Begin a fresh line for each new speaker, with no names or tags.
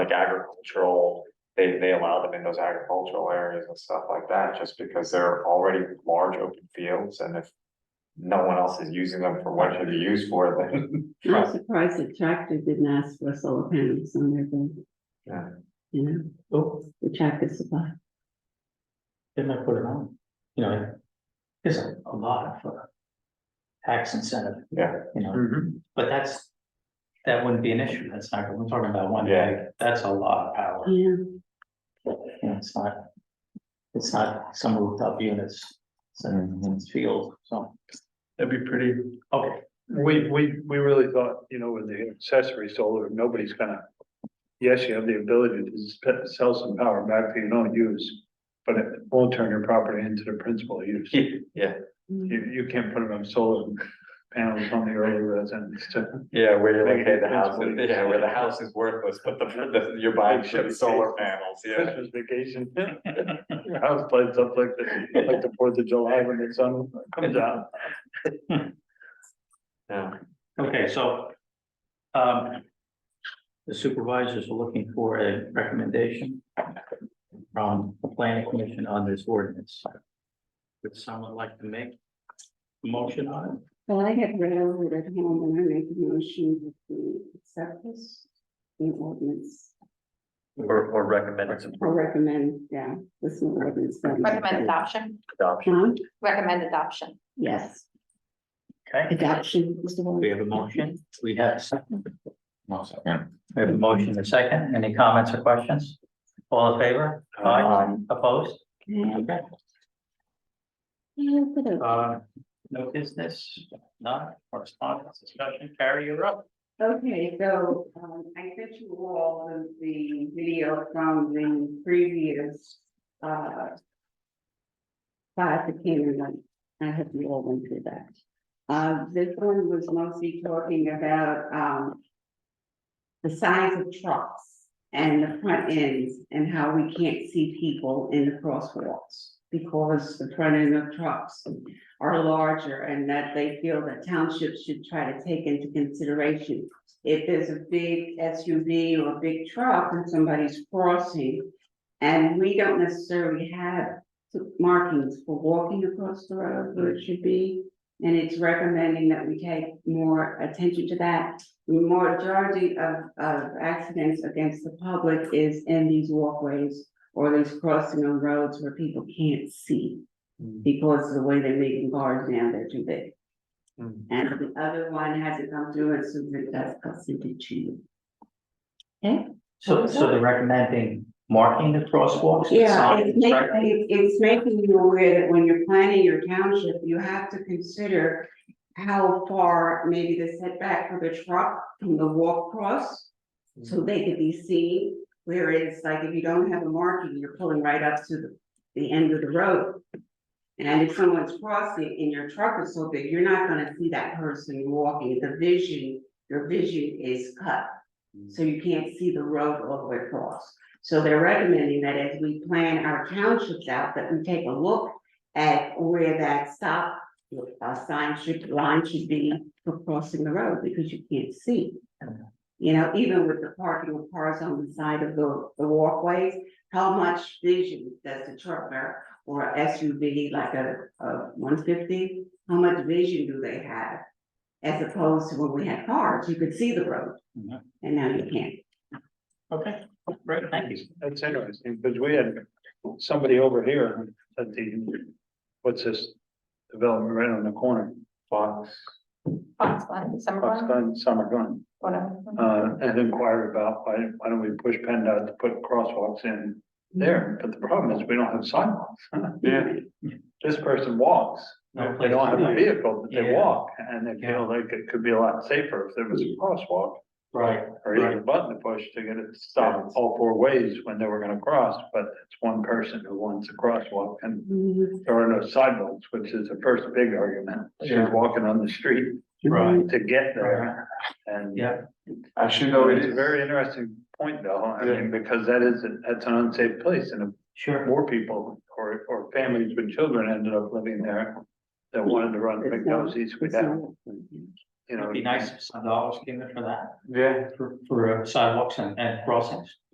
like agricultural, they, they allow them in those agricultural areas and stuff like that, just because they're already large open fields and if no one else is using them for what they're used for, then.
I'm surprised that tractor didn't ask for solar panels on their building.
Yeah.
You know,
Oh,
the tractor supply.
they might put it on, you know, there's a a lot of uh, tax incentive.
Yeah. Mm-hmm.
You know, but that's, that wouldn't be an issue, that's not, we're talking about one
Yeah.
day, that's a lot of power, you
Yeah,
know, it's not. It's not some rooftop units, it's,
Mm-hmm.
it's field, so,
That'd be pretty,
okay,
we, we, we really thought, you know, with the accessory solar, nobody's gonna. Yes, you have the ability to sp- sell some power back that you don't use, but it won't turn your property into the principal use. You,
Yeah,
Mm.
you can't put it on solar panels on the early residence to.
yeah, where you're like,
Make
hey,
it
the house, is-
principally-
yeah, where the house is worthless, but the, the, you're buying shit with solar panels, yeah.
Christmas vacation. Your house lights up like the, like the Fourth of July when the sun comes out.
Yeah,
okay, so. Um. The supervisors are looking for a recommendation from the planning commission on this ordinance. Would someone like to make a motion on it?
well, I had read over it at home and I make a motion that we accept this. in ordinance,
Or, or recommend it's
I recommend, yeah, this is an ordinance. that we-
Recommend adoption,
adoption.
Huh?
recommend adoption.
Yes,
Okay,
adoption is the
we
one.
have a motion, we have a second. We have a motion and a second, any comments or questions? All in favor? Aye. Opposed?
Okay.
Okay.
Yeah, put it-
Uh, no business, none, correspondence, discussion, carry your up.
Okay, so, um, I sent you all of the video from the previous, uh. Class that came and went. I hope you all went through that. Uh, this one was mostly talking about, um. The size of trucks and the front ends and how we can't see people in the crosswalks. Because the front end of trucks are larger and that they feel that townships should try to take into consideration. If there's a big SUV or a big truck and somebody's crossing. And we don't necessarily have markings for walking across the road where it should be. And it's recommending that we take more attention to that. The Majority of, of accidents against the public is in these walkways or these crossing on roads where people can't see because of the way they're making cars now, they're too big.
Mm.
And the other one hasn't come through, and Susan does, I'll send it to you. Okay?
So, so they're recommending marking the crosswalks? with
Yeah,
signs,
it's making,
right?
it's making you aware that when you're planning your township, you have to consider how far maybe the setback for the truck from the walk cross, so they could be seen, whereas like if you don't have a marking, you're pulling right up to the, the end of the road. And if someone's crossing and your truck is so big, you're not gonna see that person walking, the vision, your vision is cut. So you can't see the road all the way across. So they're recommending that as we plan our townships out, that we take a look at where that stop uh, sign should, line should be for crossing the road, because you can't see. You know, even with the parking of cars on the side of the, the walkways, how much vision does the trucker or SUV like a, a one fifty, how much vision do they have? As opposed to when we had cars, you could see the road,
Mhm.
and now you can't.
Okay, great, thank you.
That's interesting, because we had somebody over here at the, what's this development right on the corner?
Fox,
Fox one, summer
Fox
one,
Gun, Summer Gun,
whatever.
uh, and inquired about why, why don't we push PennDOT to put crosswalks in there? But the problem is we don't have sidewalks.
yeah,
This person walks.
No
They don't have a
place.
vehicle, but they
Yeah.
walk and they feel like it could be a lot safer if there was a crosswalk
Right,
or even a button to push to get it to stop all four ways when they were gonna cross, but it's one person who wants a crosswalk and there are no sidewalks, which is the first big argument. She's
Yeah.
walking on the street
right,
to get there. And
yeah.
actually,
so
no, it
it's a
is,
very interesting point though, I mean, because that is, that's an unsafe place and if
Sure.
more people or, or families with children ended up living there that wanted to run
It's
big
not-
noses without, you know.
It'd be nice if some dollars came in for that,
yeah.
for, for uh, sidewalks and, and crossings.